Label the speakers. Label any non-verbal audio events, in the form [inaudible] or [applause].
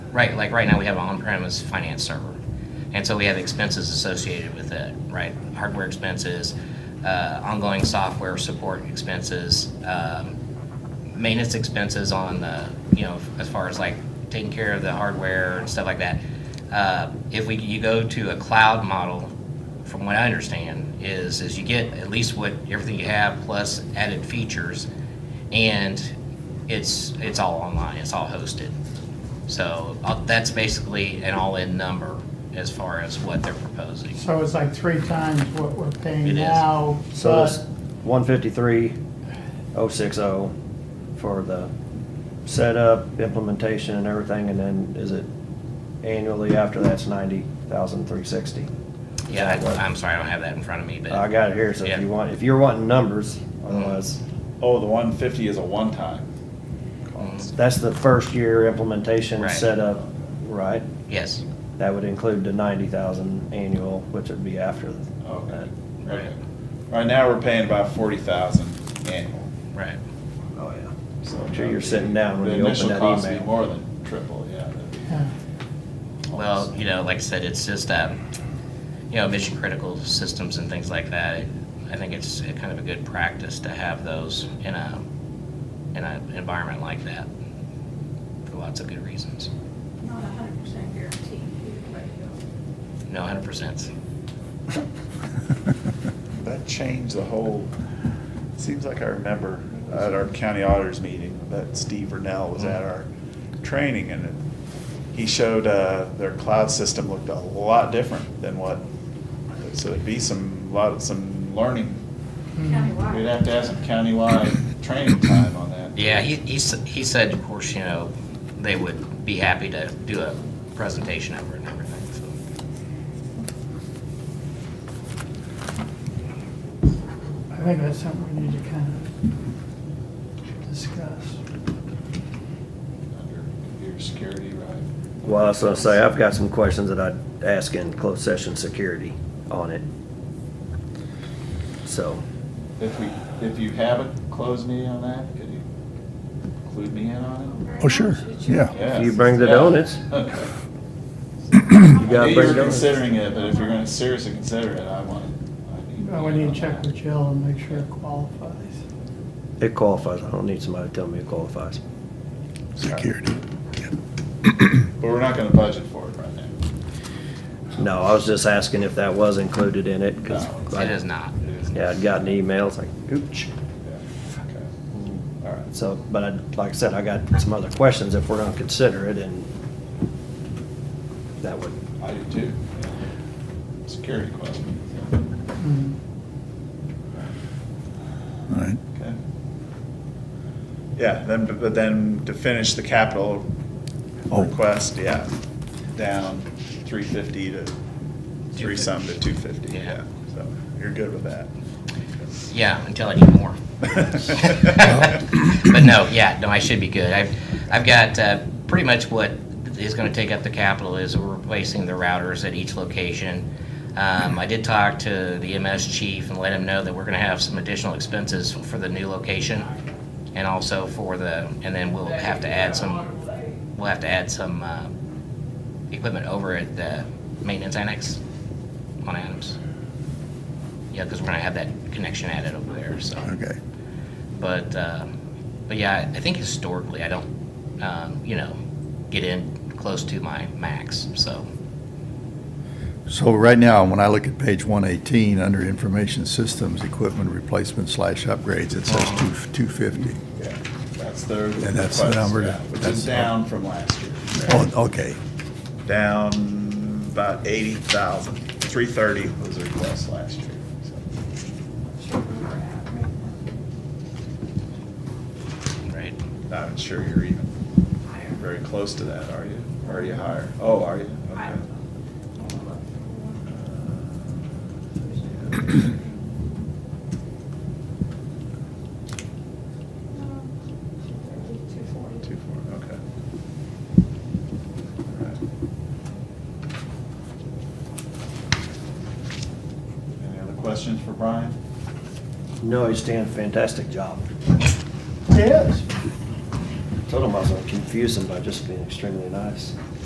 Speaker 1: right, like right now we have an on-premise finance server. And so we have expenses associated with it, right? Hardware expenses, uh, ongoing software support expenses, um, maintenance expenses on the, you know, as far as like taking care of the hardware and stuff like that. Uh, if we, you go to a cloud model, from what I understand, is, is you get at least what, everything you have plus added features. And it's, it's all online, it's all hosted. So uh, that's basically an all-in number as far as what they're proposing.
Speaker 2: So it's like three times what we're
Speaker 1: It
Speaker 2: paying
Speaker 1: is.
Speaker 2: now,
Speaker 3: So it's
Speaker 2: but
Speaker 3: one fifty-three, oh six oh for the setup, implementation and everything, and then is it annually after that's ninety thousand three sixty?
Speaker 1: Yeah, I- I'm sorry, I don't have that in front of me, but.
Speaker 3: I got it here, so if
Speaker 1: Yeah. Mm-hmm.
Speaker 3: you want, if you're wanting numbers, otherwise,
Speaker 4: Oh, the one fifty is a one-time.
Speaker 1: Mm,
Speaker 3: that's the first year implementation
Speaker 1: Right.
Speaker 3: setup, right?
Speaker 1: Yes,
Speaker 3: That would include the ninety thousand annual, which would be after
Speaker 4: Okay.
Speaker 3: that.
Speaker 4: Okay. Right now, we're paying about forty thousand annual.
Speaker 1: right.
Speaker 3: Oh, yeah.
Speaker 4: So
Speaker 3: I'm sure you're sitting down when you open
Speaker 4: The
Speaker 3: that
Speaker 4: initial cost would be
Speaker 3: email.
Speaker 4: more than triple, yeah. that'd be
Speaker 2: yeah,
Speaker 1: Well,
Speaker 4: almost-
Speaker 1: you know, like I said, it's just, um, you know, mission critical systems and things like that. It- I think it's a kind of a good practice to have those in a, in an environment like that for lots of good reasons.
Speaker 5: Not a hundred percent guarantee either way you go.
Speaker 1: No, 100%.
Speaker 4: That changed the whole, seems like I remember at our county auditors meeting, that Steve Vernell was at our
Speaker 3: Mm-hmm.
Speaker 4: training and it- he showed, uh, their cloud system looked a lot different than what, so it'd be some, lot, some learning.
Speaker 2: hmm,
Speaker 6: Hmm.
Speaker 5: Countywide.
Speaker 4: We'd have to have some countywide [coughs] training time on that.
Speaker 1: Yeah, he, he, s- he said, of course, you know, they would be happy to do a presentation over it and everything, so.
Speaker 2: I think that's something we need to kind of discuss.
Speaker 4: Under computer security, right?
Speaker 3: Well, that's what I say, I've got some questions that I'd ask in closed session security on it. So,
Speaker 4: If we, if you haven't closed me on that, could you include me in on
Speaker 5: Very
Speaker 6: Oh, sure,
Speaker 5: much. It's your-
Speaker 6: yeah.
Speaker 4: it?
Speaker 3: If you bring the
Speaker 4: Yes, yeah. [laughs]
Speaker 3: donuts.
Speaker 4: Okay.
Speaker 3: you gotta
Speaker 4: Maybe you're
Speaker 3: bring those.
Speaker 4: considering it, but if you're gonna seriously consider it, I want, I need.
Speaker 2: Uh, We need to check with Jill and make sure it qualifies.
Speaker 3: It qualifies, I don't need somebody to tell me it qualifies.
Speaker 6: Security.
Speaker 4: But we're not gonna budget for it right now.
Speaker 3: No, I was just asking if that was included in it, because.
Speaker 4: No,
Speaker 1: It is not.
Speaker 4: It is-
Speaker 3: Yeah, I'd gotten emails like, ooch.
Speaker 4: Yeah, okay. All right.
Speaker 3: So, but I, like I said, I got some other questions if we're gonna consider it, and that would,
Speaker 4: I do too. yeah. Security question.
Speaker 2: Mm.
Speaker 6: All right.
Speaker 4: Okay. Yeah, then, but then to finish the capital
Speaker 6: Oh.
Speaker 4: request, yeah, down three fifty to, three some to two fifty,
Speaker 1: Yeah.
Speaker 4: yeah. So you're good with that.
Speaker 1: Yeah, until I need more. But no, yeah, no, I should be good. I've, I've got uh, pretty much what is going to take up the capital is we're replacing the routers at each location. Um, I did talk to the MS chief and let him know that we're going to have some additional expenses for the new location and also for the, and then we'll have to add some, we'll have to add some uh, equipment over at the maintenance annex on Adams. Yeah, because we're going to have that connection added over there, so.
Speaker 6: Okay.
Speaker 1: But, uh, but yeah, I think historically, I don't, um, you know, get in close to my max, so.
Speaker 6: So right now, when I look at page 118, under Information Systems, Equipment Replacement slash Upgrades, it says two 250.
Speaker 4: Yeah, That's their.
Speaker 6: And that's the
Speaker 4: request,
Speaker 6: number to-
Speaker 4: yeah, Which
Speaker 6: that's-
Speaker 4: is down from last year.
Speaker 6: Oh, okay.
Speaker 4: Down about eighty thousand. Three thirty was the request last year. so.
Speaker 5: it's your number at, right?
Speaker 1: Right.
Speaker 4: Not even sure you're even very close to that, are you? Or are you higher? Oh, are you?
Speaker 5: I
Speaker 4: Okay.
Speaker 5: don't know. Hold on. Two forty.
Speaker 4: Two, four, okay. All right. Any other questions for Brian?
Speaker 3: no, he's doing a fantastic job.
Speaker 2: Yes.
Speaker 3: Told him I was gonna confuse him by just being extremely nice.